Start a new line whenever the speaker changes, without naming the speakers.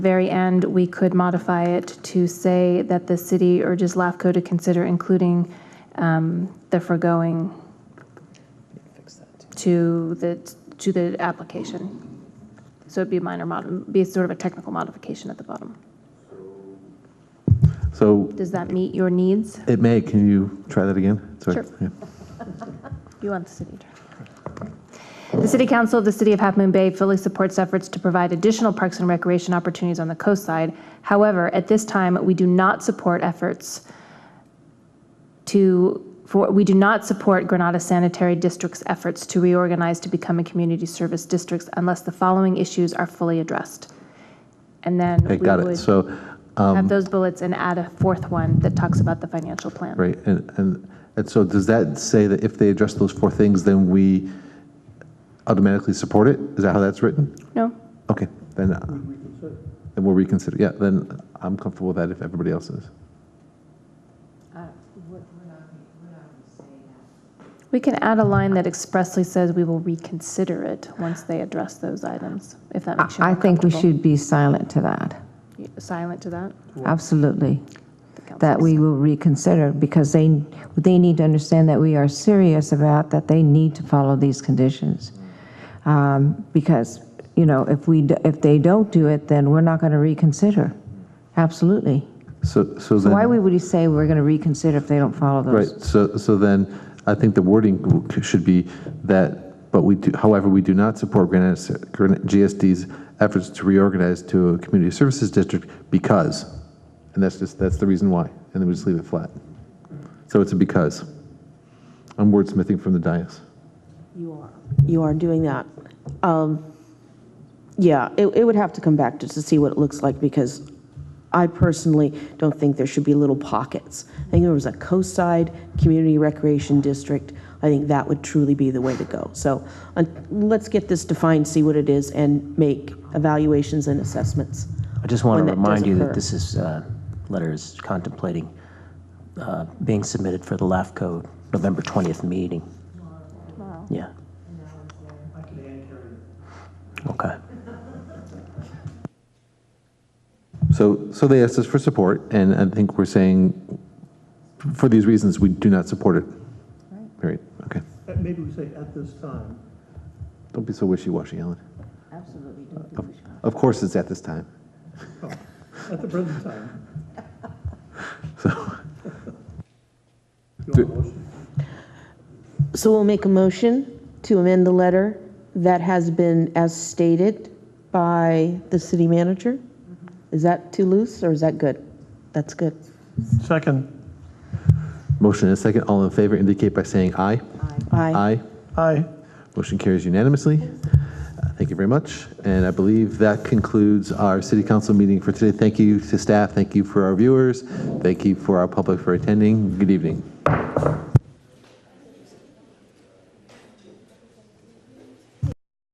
very end, we could modify it to say that the city urges LAFCO to consider including um, the foregoing to the, to the application. So it'd be a minor mod, be sort of a technical modification at the bottom.
So
Does that meet your needs?
it may, can you try that again? Sorry.
Sure.
Yeah.
You want the city attorney. The City Council of the City of Half Moon Bay fully supports efforts to provide additional parks and recreation opportunities on the coastside. However, at this time, we do not support efforts to, for, we do not support Granada Sanitary District's efforts to reorganize to become a community service district unless the following issues are fully addressed. And then we
Okay, got it.
would
So, um,
have those bullets and add a fourth one that talks about the financial plan.
right, and, and, and so does that say that if they address those four things, then we automatically support it? Is that how that's written?
No?
Okay, then, uh, then we'll reconsider, yeah, then I'm comfortable with that if everybody else is.
We can add a line that expressly says we will reconsider it once they address those items, if that makes you
I
more
think we
comfortable.
should be silent to that,
You- Silent to that?
absolutely,
The council
that we will reconsider, because they, they need to understand that we are serious about that they need to follow these conditions. Um, Because, you know, if we, d- if they don't do it, then we're not going to reconsider, absolutely.
So, so
So
then.
why would we say we're going to reconsider if they don't follow
Right,
those?
so, so then, I think the wording should be that, but we do, however, we do not support Granite, Granite- GSD's efforts to reorganize to a community services district because, and that's just, that's the reason why, and then we just leave it flat. So it's a because. I'm wordsmithing from the dais.
You are. You are doing that. Um, Yeah, it, it would have to come back just to see what it looks like, because I personally don't think there should be little pockets. I think there was a coastside community recreation district. I think that would truly be the way to go. So uh, let's get this defined, see what it is, and make evaluations and assessments.
I just want
when
to
that
remind
does
you
occur.
that this is, uh, letter is contemplating uh, being submitted for the LAFCO November 20th meeting. Yeah. Okay.
So, so they asked us for support, and I think we're saying, for these reasons, we do not support it. Period, okay.
Uh, Maybe we say at this time.
Don't be so wishy-washy, Ellen. Absolutely. Of course, it's at this time.
At the present time. So.
Do-
you want a motion?
So we'll make a motion to amend the letter that has been as stated by the city manager. Is that too loose or is that good? That's good.
Second.
Motion and a second. All in favor indicate by saying aye.
Aye.
Aye.
Motion carries unanimously. Uh, Thank you very much. And I believe that concludes our city council meeting for today. Thank you to staff. Thank you for our viewers. Thank you for our public for attending. Good evening.